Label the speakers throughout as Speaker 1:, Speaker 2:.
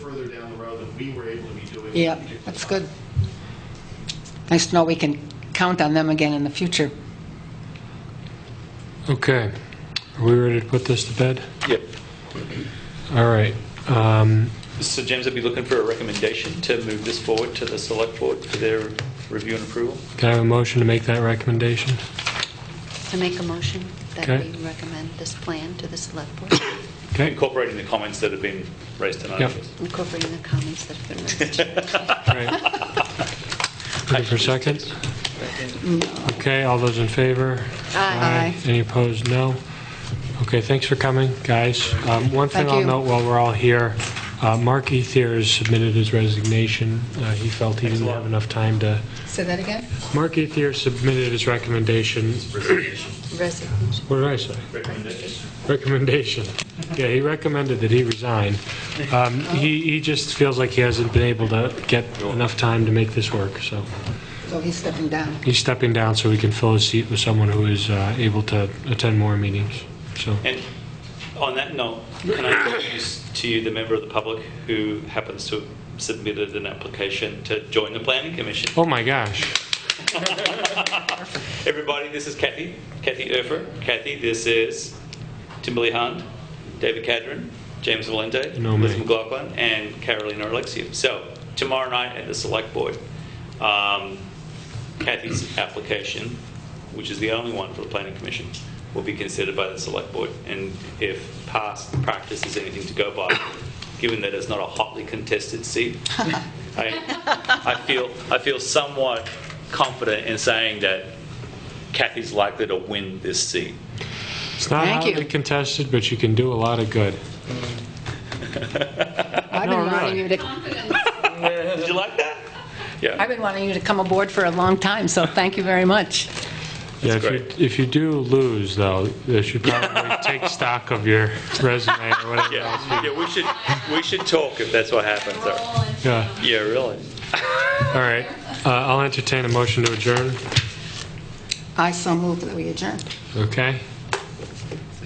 Speaker 1: down the road that we were able to be doing.
Speaker 2: Yep, that's good. Nice to know we can count on them again in the future.
Speaker 3: Okay. Are we ready to put this to bed?
Speaker 4: Yep.
Speaker 3: All right. Um,
Speaker 4: So James, I'd be looking for a recommendation to move this forward to the select board for their review and approval.
Speaker 3: Can I have a motion to make that recommendation?
Speaker 5: I make a motion that
Speaker 3: Okay.
Speaker 5: we recommend this plan to the select board,
Speaker 3: Okay, all
Speaker 4: Incorporating the comments that have been raised tonight.
Speaker 3: Yep.
Speaker 5: incorporating the comments that have been raised.
Speaker 3: right. Looking for seconds? Okay, all those in favor?
Speaker 5: Aye.
Speaker 3: Any opposed? No. Okay, thanks for coming, guys. Um, One thing
Speaker 2: Thank
Speaker 3: I'll
Speaker 2: you.
Speaker 3: note while we're all here, uh, Mark Ethier has submitted his resignation. Uh, He felt he didn't have enough time to,
Speaker 2: Say that again?
Speaker 3: Mark Ethier submitted his recommendation.
Speaker 5: Resignation.
Speaker 3: What did I say? recommendation. Yeah, he recommended that he resign. Um, He he just feels like he hasn't been able to get enough time to make this work, so
Speaker 2: So he's stepping down.
Speaker 3: he's stepping down so he can fill his seat with someone who is uh, able to attend more meetings, so.
Speaker 4: And on that note, can I introduce to you the member of the public who happens to have submitted an application to join the planning commission?
Speaker 3: Oh, my gosh.
Speaker 4: Everybody, this is Kathy, Kathy Erfer. Kathy, this is Timberly Hunt, David Cadron, James Valente,
Speaker 3: No,
Speaker 4: Liz
Speaker 3: mate.
Speaker 4: McLaughlin, and Carolina Alexiou. So tomorrow night at the select board, um, Kathy's application, which is the only one for the planning commission, will be considered by the select board. And if past practice is anything to go by, given that it's not a hotly contested seat, I, I feel I feel somewhat confident in saying that Kathy's likely to win this seat.
Speaker 3: It's not
Speaker 2: Thank you.
Speaker 3: hotly contested, but you can do a lot of good.
Speaker 2: I've
Speaker 3: No,
Speaker 2: been
Speaker 3: really.
Speaker 2: wanting you to,
Speaker 4: Did you like that? Yeah.
Speaker 2: I've been wanting you to come aboard for a long time, so thank you very much.
Speaker 3: Yeah,
Speaker 4: That's
Speaker 3: if you, if you do lose, though, you should probably take stock of your resume or whatever else.
Speaker 4: Yeah. yeah, we should we should talk if that's what happens. Or,
Speaker 3: Yeah,
Speaker 4: yeah, really.
Speaker 3: all right. Uh, I'll entertain a motion to adjourn,
Speaker 2: I so move that we adjourn.
Speaker 3: okay?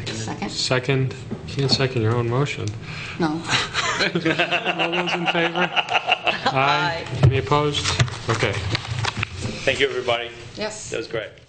Speaker 2: Second?
Speaker 3: Second, you can't second your own motion.
Speaker 2: No.
Speaker 3: All those in favor? Aye. Any opposed? Okay.
Speaker 4: Thank you, everybody.
Speaker 2: Yes.
Speaker 4: That was great.